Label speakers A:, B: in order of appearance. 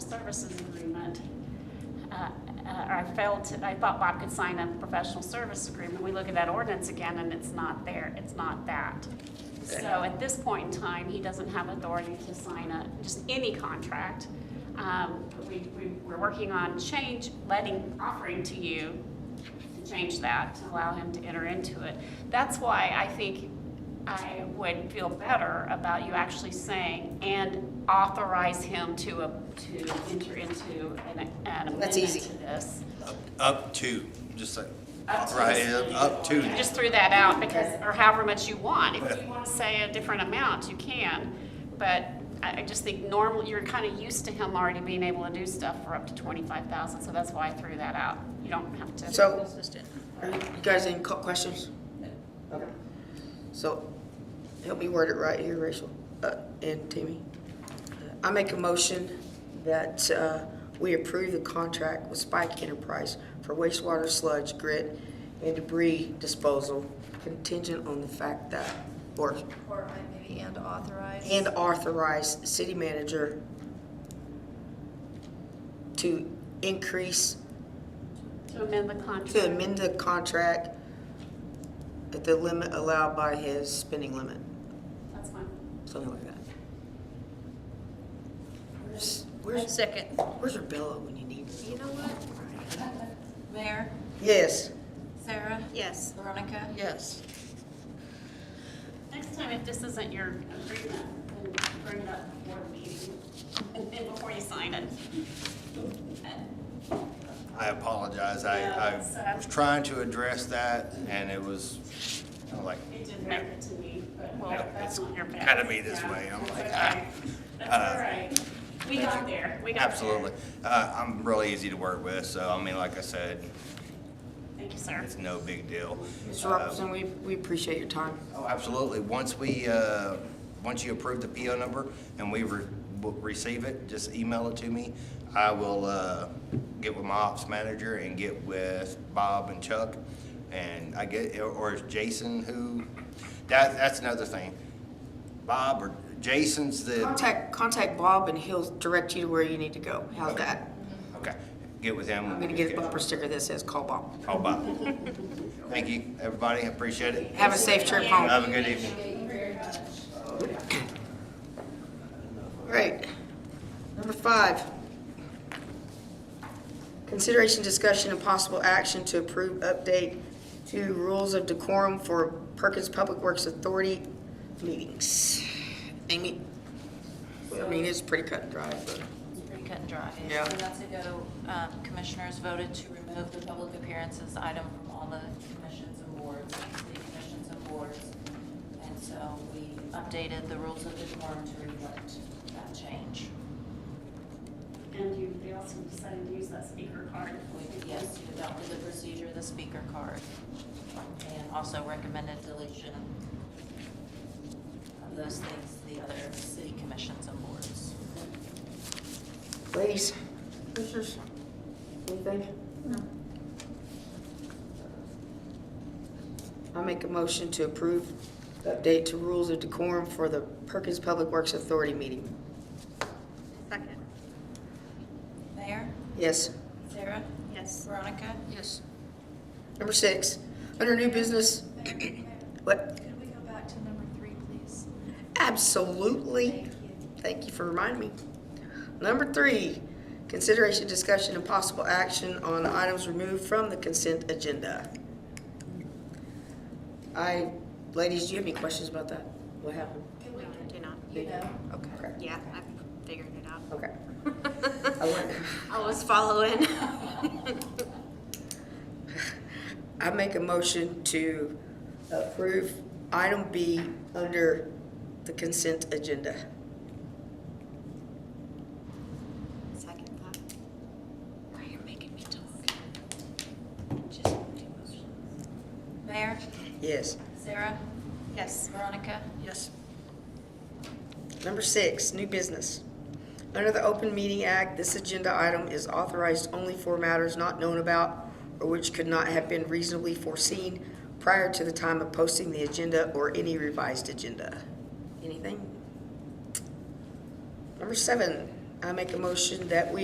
A: services agreement. Uh, uh, I felt, I thought Bob could sign a professional service agreement. We look at that ordinance again and it's not there, it's not that. So at this point in time, he doesn't have authority to sign a, just any contract. Um, We, we- we're working on change, letting, offering to you to change that, to allow him to enter into it. That's why I think I would feel better about you actually saying, and authorize him to, a- to enter into an an amendment
B: That's easy.
A: to this.
C: Up to, just like,
A: Up to.
C: right, up to.
A: You just threw that out because, or however much you want. If you want to say a different amount, you can. But I, I just think normally, you're kind of used to him already being able to do stuff for up to twenty-five thousand, so that's why I threw that out. You don't have to.
B: So, are you guys any co- questions? Okay. So, help me word it right here, Rachel, uh, and Timmy. I make a motion that, uh, we approve the contract with Spike Enterprise for wastewater sludge, grit, and debris disposal contingent on the fact that, or,
D: Or maybe and authorize.
B: and authorize city manager to increase
A: To amend the contract.
B: to amend the contract at the limit allowed by his spending limit,
A: That's fine.
B: something like that. Where's, where's,
E: Second.
B: where's your Bella when you need? her?
D: You know what? Mayor,
B: Yes,
D: Sarah,
E: Yes.
D: Veronica.
E: Yes.
A: Next time, if this isn't your agreement, then bring it up before the meeting and and before you sign it.
C: I apologize, I, I
A: Yeah, so-
C: was trying to address that, and it was kinda like,
A: It didn't make it to me, but well,
C: Yeah,
A: that's
C: it's
A: not your bad.
C: kinda me this
A: Yeah,
C: way. I'm
A: that's
C: like,
A: okay.
C: ah.
A: That's
C: Uh,
A: all right. We got there. We got there.
C: absolutely. Uh, I'm really easy to work with, so, I mean, like I said,
A: Thank you, sir.
C: it's no big deal.
B: Mr.
C: Uh,
B: Robinson, we, we appreciate your time.
C: Oh, absolutely. Once we, uh, once you approve the PO number and we re- w- receive it, just email it to me. I will uh, get with my ops manager and get with Bob and Chuck. And I get, or is Jason who, that, that's another thing. Bob or Jason's the,
B: Contact, contact Bob and he'll direct you to where you need to go. How's that?
C: okay, get with him.
B: I'm gonna get a bumper sticker that says, call Bob.
C: Call Bob. Thank you, everybody. I appreciate it.
B: Have a safe trip home.
C: Have a good evening.
B: Right. Number five. Consideration, discussion, and possible action to approve update to rules of decorum for Perkins Public Works Authority meetings. Amy? I mean, it's pretty cut and dry, but.
F: Pretty cut and dry.
B: Yeah.
F: So that's a go. Um, Commissioners voted to remove the public appearances item from all the commissions and boards, city commissions and boards. And so we updated the rules of the forum to reflect that change.
A: And you, they also decided to use that speaker card.
F: We, yes, you adopted the procedure, the speaker card, and also recommended deletion of those things, the other city commissions and boards.
B: Ladies? Commissioners? Anything? No. I make a motion to approve update to rules of decorum for the Perkins Public Works Authority meeting.
E: Second.
F: Mayor,
B: Yes?
F: Sarah,
E: Yes.
F: Veronica?
E: Yes.
B: Number six, under new business,
D: Mayor, Mayor,
B: what,
D: Could we go back to number three, please?
B: absolutely,
D: Thank you.
B: thank you for reminding me. Number three, consideration, discussion, and possible action on items removed from the consent agenda. I, ladies, do you have any questions about that? What happened?
D: Could we,
E: Do not.
D: you know,
B: Okay.
E: Yeah, I figured it out.
B: Okay. I wonder.
E: I was following.
B: I make a motion to approve item B under the consent agenda.
E: Second thought. Why you're making me talk?
F: Mayor,
B: Yes.
F: Sarah,
E: Yes.
F: Veronica?
B: Yes. Number six, new business. Under the Open Meeting Act, this agenda item is authorized only for matters not known about or which could not have been reasonably foreseen prior to the time of posting the agenda or any revised agenda. Anything? Number seven, I make a motion that we